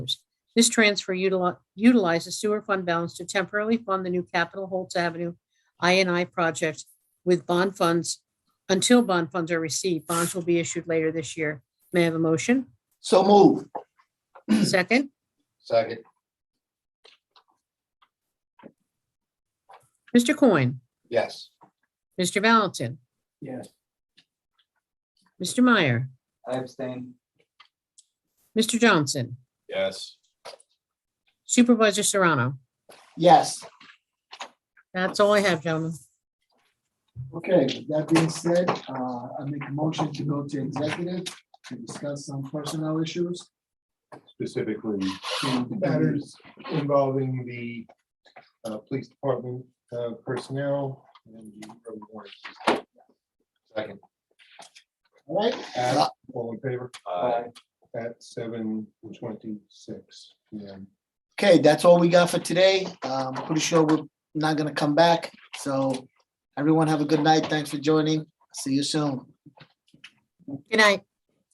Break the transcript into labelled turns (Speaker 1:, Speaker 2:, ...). Speaker 1: This transfer utili- utilizes sewer fund balance to temporarily fund the new Capitol Holtz Avenue INI project with bond funds until bond funds are received. Bonds will be issued later this year. May I have a motion?
Speaker 2: So move.
Speaker 1: Second,
Speaker 2: Second.
Speaker 1: Mr. Coyne,
Speaker 2: Yes.
Speaker 1: Mr. Valentin,
Speaker 2: Yes.
Speaker 1: Mr. Meyer,
Speaker 2: I abstain.
Speaker 1: Mr. Johnson,
Speaker 3: Yes.
Speaker 1: Supervisor Serrano.
Speaker 2: Yes.
Speaker 1: That's all I have, gentlemen.
Speaker 2: Okay, with that being said, uh, I make a motion to go to executive to discuss some personnel issues.
Speaker 3: Specifically, matters involving the uh, police department uh, personnel and the road warrants. Second.
Speaker 2: All right?
Speaker 3: At- All in favor? At seven twenty-six PM.
Speaker 2: Okay, that's all we got for today. Um, pretty sure we're not gonna come back, so everyone have a good night. Thanks for joining. See you soon.
Speaker 1: Good night.